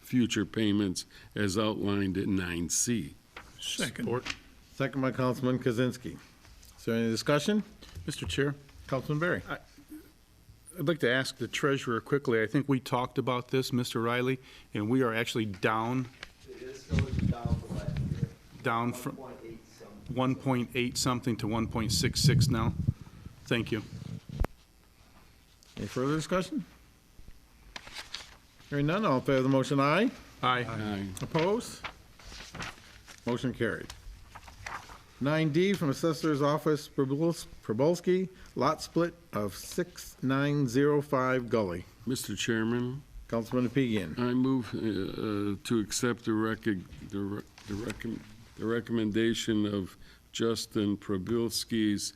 future payments as outlined in 9C. Second. Second by Councilman Kozinski. Is there any discussion? Mr. Chair, Councilman Berry. I'd like to ask the treasurer quickly, I think we talked about this, Mr. Riley, and we are actually down, It is going down from last year, down one from point eight 1.8 something something. to 1.66 now. Thank you. Any further discussion? Hearing none, all in favor of the motion, aye. Aye. Aye. Opposed? Motion carried. 9D from Assessor's Office, Probols- Probolski, lot split of 6905 Gully. Mr. Chairman, Councilman Apigian. I move uh, uh, to accept the recog- the re- the recom- the recommendation of Justin Probilski's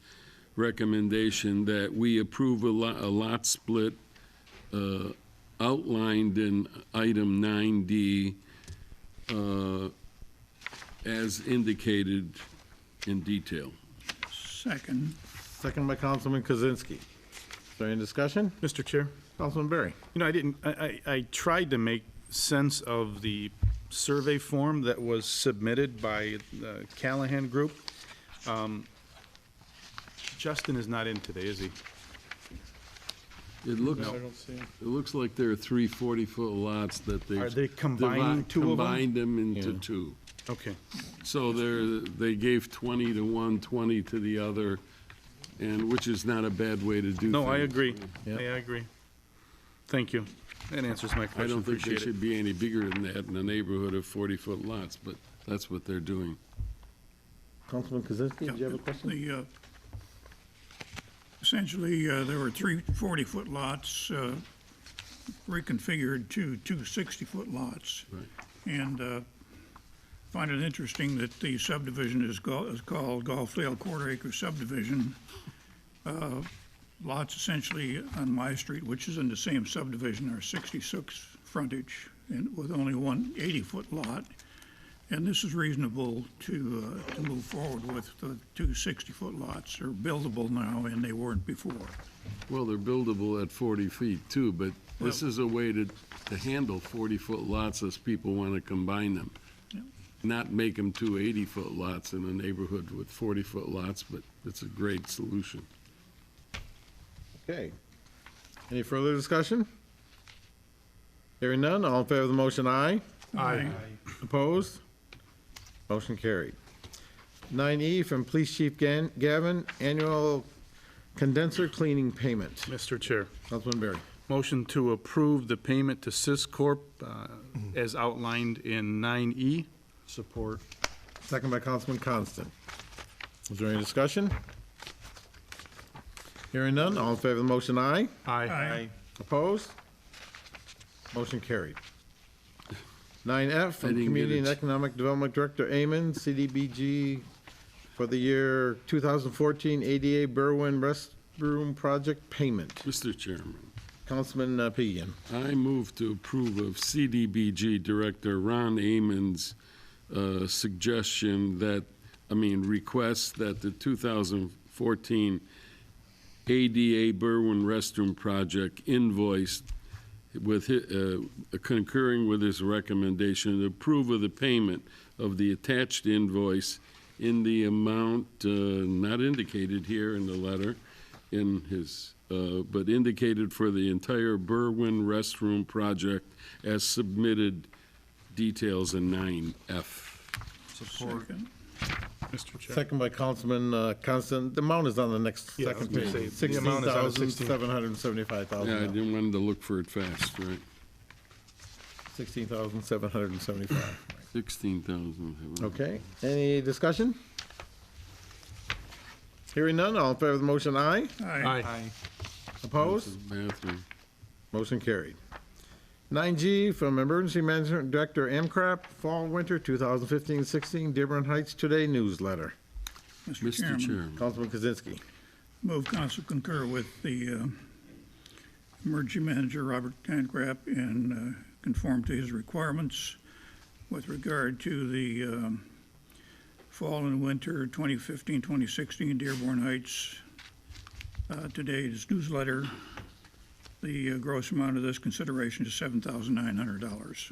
recommendation that we approve a lot, a lot split uh, outlined in item 9D uh, as indicated in detail. Second. Second by Councilman Kozinski. Is there any discussion? Mr. Chair? Councilman Berry. You know, I didn't, I, I I tried to make sense of the survey form that was submitted by the Callahan Group. Um, Justin is not in today, is he? It looks, it looks like there are three 40-foot lots that they. Are they combining two of them? Combined them into Yeah. two. Okay. So they're, they gave 20 to one, 20 to the other, and, which is not a bad way to do things. No, I agree. Yeah. Yeah, I agree. Thank you. That answers my I question. don't think they Appreciate it. should be any bigger than that in a neighborhood of 40-foot lots, but that's what they're doing. Councilman Kozinski, did you have a question? The, uh, essentially, uh, there were three 40-foot lots uh, reconfigured to two 60-foot lots. Right. And uh, find it interesting that the subdivision is go- is called Golfdale Quarter Acre Subdivision. Uh, Lots essentially on my street, which is in the same subdivision, are 66 frontage and with only one 80-foot lot. And this is reasonable to, uh, to move forward with the two 60-foot lots are buildable now and they weren't before. Well, they're buildable at 40 feet too, but this is a way to, to handle 40-foot lots as people want to combine them. Not make them two 80-foot lots in a neighborhood with 40-foot lots, but it's a great solution. Okay. Any further discussion? Hearing none, all in favor of the motion, aye. Aye. Opposed? Motion carried. 9E from Police Chief Gan- Gavin, annual condenser cleaning payment. Mr. Chair, Councilman Berry. motion to approve the payment to Syscorp uh, as outlined in E. 9E. Support. Second by Councilman Constant. Is there any discussion? Hearing none, all in favor of the motion, aye. Aye. Opposed? Motion carried. 9F I from didn't get Community and it. Economic Development Director Amen, CDBG, for the year 2014 ADA Berwin Restroom Project Payment. Mr. Chairman. Councilman uh, Pigian. I move to approve of CDBG Director Ron Amon's uh, suggestion that, I mean, request that the 2014 ADA Berwin Restroom Project invoiced with, hi- uh, concurring with his recommendation, to approve of the payment of the attached invoice in the amount uh, not indicated here in the letter, in his, uh, but indicated for the entire Berwin restroom project as submitted details in 9F. Second. Mr. Chair. Second by Councilman uh, Constant. The amount is on the next Yeah, I was second gonna page. say, the amount is on 16. Yeah, I 16,775,000. didn't want to look for it fast, right? 16,775. 16,000. Okay, any discussion? Hearing none, all in favor of the motion, aye. Aye. Opposed? Bathroom. Motion carried. 9G from Emergency Management Director Amcrop, Fall Winter 2015-16 Dearborn Heights Today newsletter. Mr. Chairman. Councilman Kozinski. Move council concur with the uh, emergency manager, Robert Tancrap, and uh, conform to his requirements with regard to the um, fall and winter 2015, 2016 Dearborn Heights uh, today's newsletter. The uh, gross amount of this consideration is $7,900.